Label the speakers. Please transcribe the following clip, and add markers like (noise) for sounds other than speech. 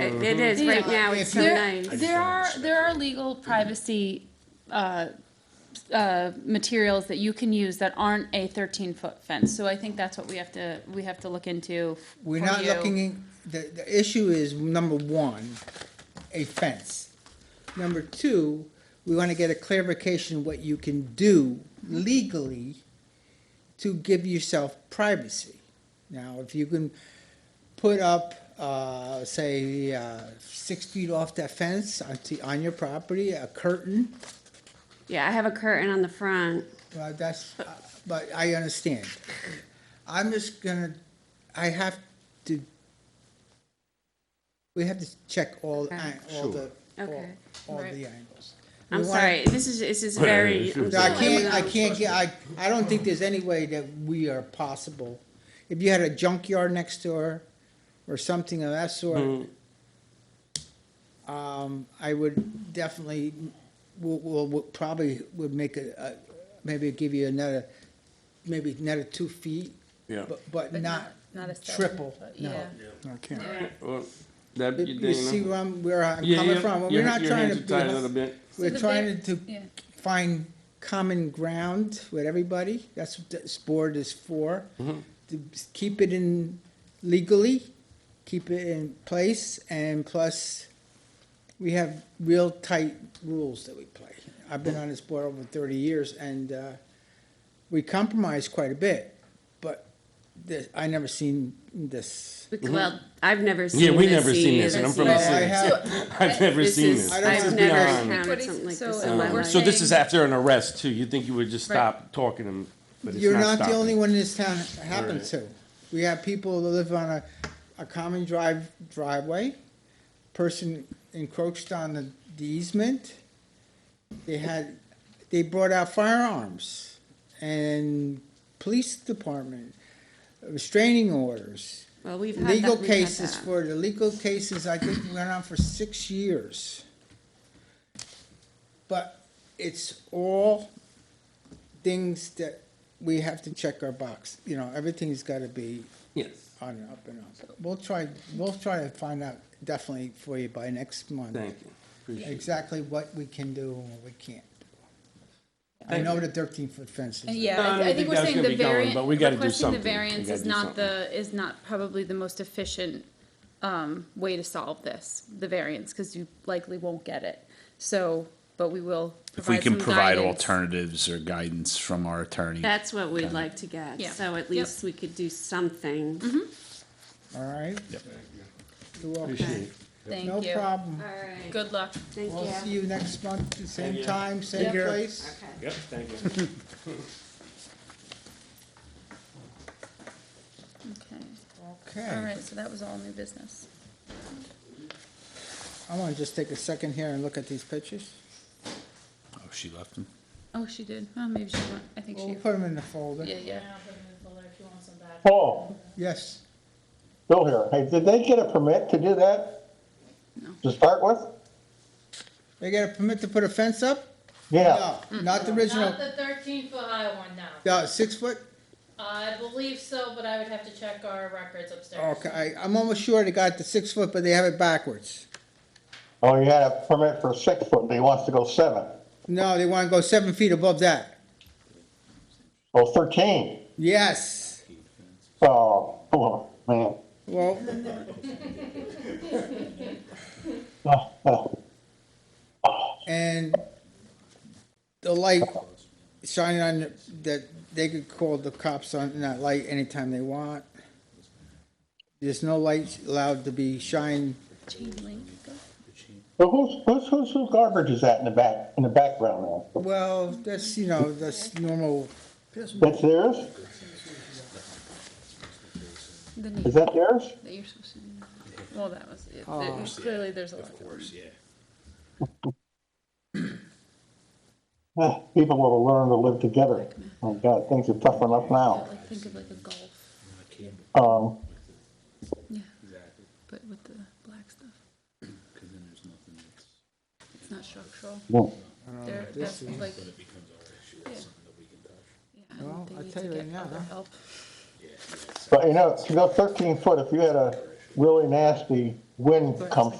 Speaker 1: It it is, right now, it's so
Speaker 2: There,
Speaker 1: nice.
Speaker 2: there are, there are legal privacy, uh, uh, materials that you can use that aren't a thirteen-foot fence, so I think that's what we have to, we have to look into. f-
Speaker 3: We're
Speaker 2: for
Speaker 3: not
Speaker 2: you.
Speaker 3: looking, in- the, the issue is, number one, a fence. Number two, we wanna get a clarification what you can do legally to give yourself privacy. Now, if you can put up, uh, say, uh, six feet off that fence on, t- on your property, a curtain,
Speaker 1: Yeah, I have a curtain on the front.
Speaker 3: well, that's, but I understand. I'm just gonna, I have to, we have to check all, an- all the, all,
Speaker 1: Okay.
Speaker 3: all
Speaker 2: Right.
Speaker 3: the angles.
Speaker 1: I'm
Speaker 3: We wanna-
Speaker 1: sorry, this is, this is very. I'm
Speaker 3: No, I
Speaker 1: sorry.
Speaker 3: can't, I can't get, I, I don't think there's any way that we are possible. If you had a junkyard next door or something of that
Speaker 4: Mm-hmm.
Speaker 3: sort, um, I would definitely, will, will, will probably would make a, a, maybe give you another, maybe another two feet.
Speaker 4: Yeah.
Speaker 3: But, but not
Speaker 2: not a seven
Speaker 3: triple,
Speaker 2: foot,
Speaker 3: no.
Speaker 2: yeah.
Speaker 3: No, I can't.
Speaker 4: Well, that,
Speaker 3: You- You see
Speaker 4: Dana.
Speaker 3: where I'm, where I'm
Speaker 4: Yeah,
Speaker 3: coming
Speaker 4: yeah,
Speaker 3: from,
Speaker 4: your-
Speaker 3: we're not
Speaker 4: your
Speaker 3: trying to
Speaker 4: hands
Speaker 3: be.
Speaker 4: are tied a little bit.
Speaker 2: So
Speaker 3: We're
Speaker 2: the
Speaker 3: trying
Speaker 2: big-
Speaker 3: to
Speaker 2: yeah.
Speaker 3: find common ground with everybody. That's what this board is for. To s- keep it in legally, keep it in place, and plus, we have real tight rules that we play. I've been on this board over thirty years, and, uh, we compromise quite a bit, but this, I never seen this.
Speaker 1: Well, I've never seen this
Speaker 4: Mm-hmm.
Speaker 1: either.
Speaker 4: Yeah, we never seen this, and I'm from the
Speaker 3: Well, I
Speaker 4: city.
Speaker 3: have-
Speaker 4: (laughs) I've never
Speaker 1: This
Speaker 4: seen
Speaker 1: is,
Speaker 4: this.
Speaker 3: I don't
Speaker 4: This
Speaker 1: I've
Speaker 4: is
Speaker 3: think-
Speaker 1: never
Speaker 4: beyond. um,
Speaker 1: encountered something like
Speaker 2: So
Speaker 1: this
Speaker 2: if
Speaker 1: in my
Speaker 2: we're
Speaker 1: life.
Speaker 4: So this is
Speaker 2: saying-
Speaker 4: after an arrest too. You think you would just
Speaker 2: Right.
Speaker 4: stop talking to him, but it's
Speaker 3: You're
Speaker 4: not
Speaker 3: not the only
Speaker 4: stopping.
Speaker 3: one in this town it happened
Speaker 4: Right.
Speaker 3: to. We have people that live on a, a common drive, driveway, person encroached on the the easement. They had, they brought out firearms and police department, restraining orders.
Speaker 1: Well, we've had that,
Speaker 3: Legal
Speaker 1: we've had
Speaker 3: cases
Speaker 1: that.
Speaker 3: for, the legal cases, I think, went on for six years. But it's all things that we have to check our box, you know, everything's gotta be
Speaker 4: Yes,
Speaker 3: on and up and up. We'll try, we'll try to find out definitely for you by next month.
Speaker 4: thank you. Appreciate it.
Speaker 3: Exactly what we can do and what we can't. I
Speaker 4: Thank
Speaker 3: know the thirteen foot fence
Speaker 1: Uh,
Speaker 3: is.
Speaker 2: Uh, Yeah,
Speaker 4: No, I
Speaker 2: I-
Speaker 4: don't
Speaker 2: I
Speaker 4: think
Speaker 2: think we're
Speaker 4: that's
Speaker 2: saying
Speaker 4: gonna
Speaker 2: the
Speaker 4: be going,
Speaker 2: variant,
Speaker 4: but we gotta do
Speaker 2: requesting the
Speaker 4: something. We
Speaker 2: variance
Speaker 4: gotta
Speaker 2: is
Speaker 4: do
Speaker 2: not the, is not probably the most efficient, um, way to solve this, the variance, cause you likely won't get it. So, but we will
Speaker 5: If we
Speaker 2: provide
Speaker 5: can
Speaker 2: some
Speaker 5: provide
Speaker 2: guidance.
Speaker 5: alternatives or guidance from our attorney.
Speaker 1: That's what we'd like to get,
Speaker 2: Yeah.
Speaker 1: so at
Speaker 2: Yep.
Speaker 1: least we could do something.
Speaker 3: All right?
Speaker 5: Yep.
Speaker 3: You're welcome.
Speaker 4: Appreciate it.
Speaker 3: No
Speaker 2: Thank you.
Speaker 3: problem.
Speaker 1: All right.
Speaker 2: Good luck.
Speaker 1: Thank
Speaker 3: We'll see
Speaker 1: you.
Speaker 3: you next month, same
Speaker 4: you.
Speaker 3: time, same
Speaker 2: care.
Speaker 3: place.
Speaker 1: Okay.
Speaker 4: Yep, thank you.
Speaker 2: Okay, all
Speaker 3: Okay,
Speaker 2: right, so that was all new business.
Speaker 3: I wanna just take a second here and look at these pictures.
Speaker 5: Oh, she left him.
Speaker 2: Oh, she did, oh, maybe she, went- I think
Speaker 3: We'll
Speaker 2: she,
Speaker 3: put them in the folder.
Speaker 2: yeah, yeah.
Speaker 6: Paul,
Speaker 3: Yes,
Speaker 6: Bill here. Hey, did they get a permit to do that? To start with?
Speaker 3: they got a permit to put a fence up?
Speaker 6: Yeah.
Speaker 3: No, not the original,
Speaker 7: Not the thirteen foot high one, no.
Speaker 3: no, six foot?
Speaker 7: I believe so, but I would have to check our records upstairs.
Speaker 3: Oh, Okay, I, I'm almost sure they got the six foot, but they have it backwards.
Speaker 6: Oh, you had a permit for six foot, but he wants to go seven.
Speaker 3: No, they wanna go seven feet above that.
Speaker 6: Oh, 13.
Speaker 3: Yes,
Speaker 6: Oh, oh, man.
Speaker 3: well,
Speaker 6: Oh, oh.
Speaker 3: and the light shining on, the- that, they could call the cops on that light anytime they want. There's no light allowed to be shined
Speaker 2: Chain link,
Speaker 6: So who's, who's, who's, whose garbage is that in the back, in the background there?
Speaker 3: Well, that's, you know, that's normal,
Speaker 6: That's theirs?
Speaker 2: the
Speaker 6: Is
Speaker 2: knee
Speaker 6: that theirs?
Speaker 2: that you're supposed to do. Well, that was, it. clearly there's a lot. Of course, yeah.
Speaker 6: Ah, People will learn to live together. Oh, God, things are tough enough now.
Speaker 2: Like, think of like a golf,
Speaker 6: Um,
Speaker 2: yeah. But with the black stuff. It's not structural.
Speaker 6: yeah.
Speaker 2: They're, that's like. Yeah, I
Speaker 3: Well,
Speaker 2: think they
Speaker 3: I
Speaker 2: need
Speaker 3: tell
Speaker 2: to
Speaker 3: you right
Speaker 2: get
Speaker 3: now,
Speaker 2: other
Speaker 3: huh?
Speaker 2: help.
Speaker 6: But you know, to go thirteen foot, if you had a really nasty wind come